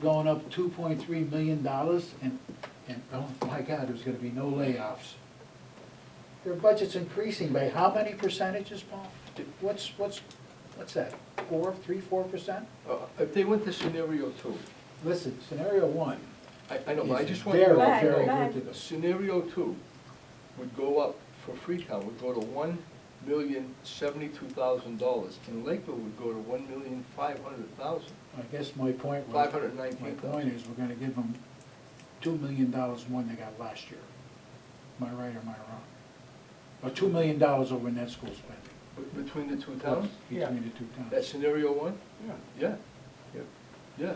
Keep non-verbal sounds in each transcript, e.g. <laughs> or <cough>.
going up two point three million dollars and, and, oh my God, there's gonna be no layoffs. Their budget's increasing by how many percentages, Paul? Do- What's, what's, what's that, four, three, four percent? Uh, If they went to scenario two, Listen, scenario one I, I know, but I is just want you to very, Go ahead, very go know. ahead. good Scenario two would go up for Freetown, would go to one million seventy-two thousand dollars, and Lakeville would go to one million five hundred thousand. I guess my point was. My 519,000. point is, we're gonna give them two million dollars more than they got last year. Am I right or am I wrong? Or two million dollars over net school spending Between the two towns? between the two towns. That's scenario one? Yeah. Yeah. Yeah.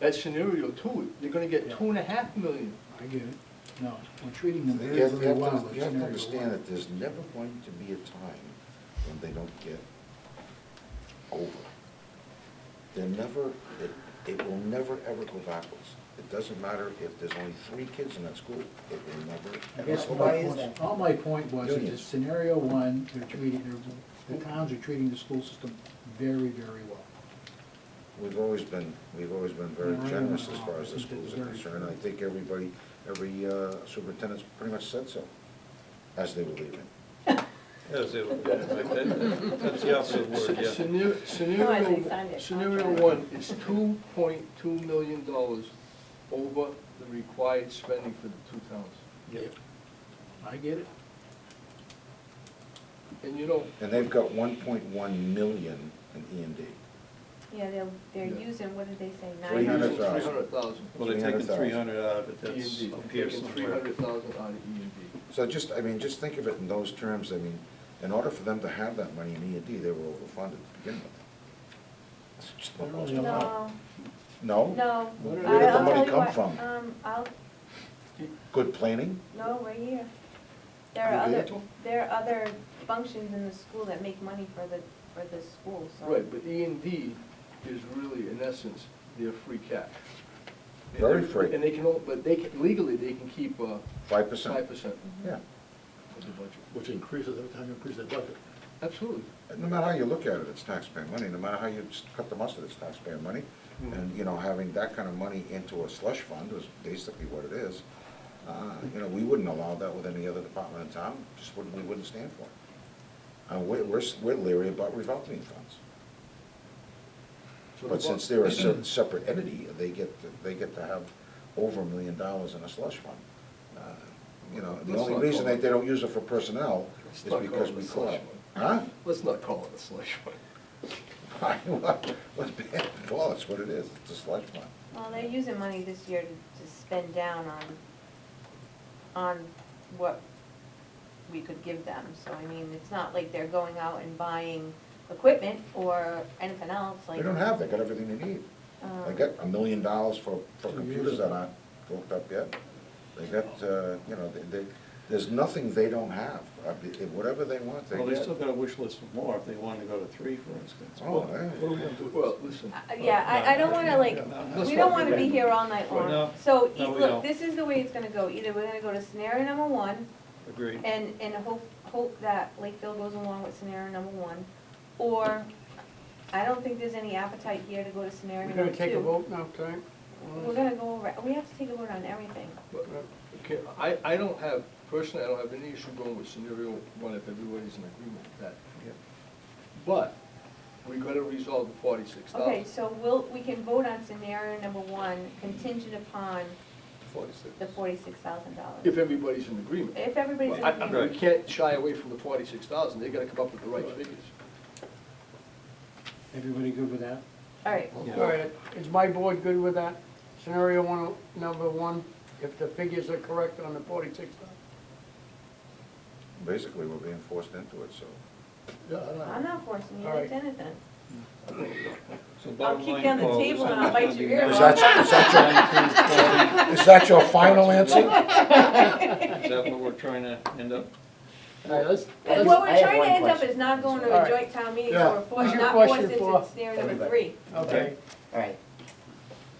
That's scenario two, you're gonna get Yeah. two and a half million. I get it. No, we're treating them You very, have you very have well. to, It's you have to scenario one. understand that there's never going to be a time when they don't get over. They're never, it, it will never, ever go backwards. It doesn't matter if there's only three kids in that school, it will never. I ever guess go my backwards. point, all my point was, is that Unions. scenario one, they're treating, they're, the towns are treating the school system very, very well. We've always been, we've always been very Right. generous as far as the schools are concerned. I think everybody, every uh, superintendent's pretty much said so, as they were leaving. Yes, it would, like that, that's the opposite word, Sce- yeah. scenar- Oh, think Scenario, signed it. scenario one is two point two million dollars over the required spending for the two towns. I get it. And you know, And they've got one point one million in E EMD. Yeah, they're, they're Yeah. using, what did they say, Three nine hundred hundred? thousand. three hundred thousand. Well, they're taking 300,000. three hundred out of it, that's E and D, appears three somewhere. hundred thousand out of E and D. So just, I mean, just think of it in those terms, I mean, in order for them to have that money in E and D, they were overfunded to begin with. It's just not possible. No, No? no. Where did I- the I'll money tell you come what, from? Um, I'll, Good planning? no, right here. There are Are you other, able? there are other functions in the school that make money for the, for the school, so. Right, but E and D is really, in essence, their free cash. And Very they- free. And they can, all- but they can, legally, they can keep, uh, Five five percent? percent Yeah. of the budget. which increases every time you increase the budget. Absolutely. No matter how you look at it, it's taxpayer money, no matter how you s- cut the mustard, it's taxpayer money. And, you know, having that kind of money into a slush fund is basically what it is. Uh, You know, we wouldn't allow that with any other department in town, just wouldn't, we wouldn't stand for it. And we're, we're s- we're leery about revolving funds. So the But bo- <laughs> since they're a se- separate entity, they get, to- they get to have over a million dollars in a slush fund. Uh, You know, the Let's only not reason call it- that they don't use it for personnel Let's is not call because it a we slush collect. Huh? <laughs> Let's not call it a <laughs> slush fund. Let's be, well, that's what it is, it's a slush fund. Well, they're using money this year to, to spend down on, on what we could give them. So I mean, it's not like they're going out and buying equipment or anything else, like. They don't have, they got everything they need. They um, got a million dollars for, for computers that aren't hooked up yet. They got, uh, you know, they, they, there's nothing they don't have. I mean, Whatever they want, they Well, they get. still got a wish list of more if they wanted to go to three, for instance. Oh, yeah. What are we gonna do? Well, listen. Uh, Yeah, I, I don't wanna like, Let's we not don't do wanna be that. here all night long. No, So, e- no, we look, don't. this is the way it's gonna go, either we're gonna go to scenario number one, Agreed. and, and hope, hope that Lakeville goes along with scenario number one, or, I don't think there's any appetite here to go to scenario We're number gonna two. take a vote now, time? We're gonna go over, we have to take a vote on everything. But, Okay, I, I don't have, personally, I don't have any issue going with scenario one if everybody's in agreement with that. But we gotta resolve the forty-six Okay, thousand. so we'll, we can vote on scenario number one contingent upon the forty-six thousand If dollars. everybody's in agreement. If everybody's in I- I- agreement, We can't shy away from the forty-six thousand, they gotta come up with the right figures. Everybody good with that? all right, All right, is my board good with that? Scenario one, number one, if the figures are correct on the forty-six thousand? Basically, we're being forced into it, so. I'm not forcing you All to right. do anything. So bottom kick line, down the Paul, table this and one's I'll bite gonna your be ear nine- off. Is that, is <laughs> that your, is that your final answer? nine through 12. Is that what we're trying to end up? All right, let's. But let's- what we're I have trying to one end up question. is not going All to a right. joint town meeting, Yeah. so we're What's forced, your not forced question into for scenario number everybody? three. Okay, All right,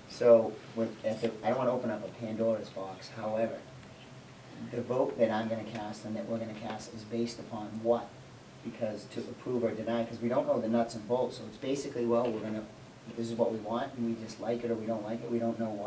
so with, if it- I don't wanna open up a Pandora's box, however, the vote that I'm gonna cast and that we're gonna cast is based upon what? Because to approve or deny, because we don't know the nuts and bolts, so it's basically, well, we're gonna this is what we want, and we just like it or we don't like it, we don't know why.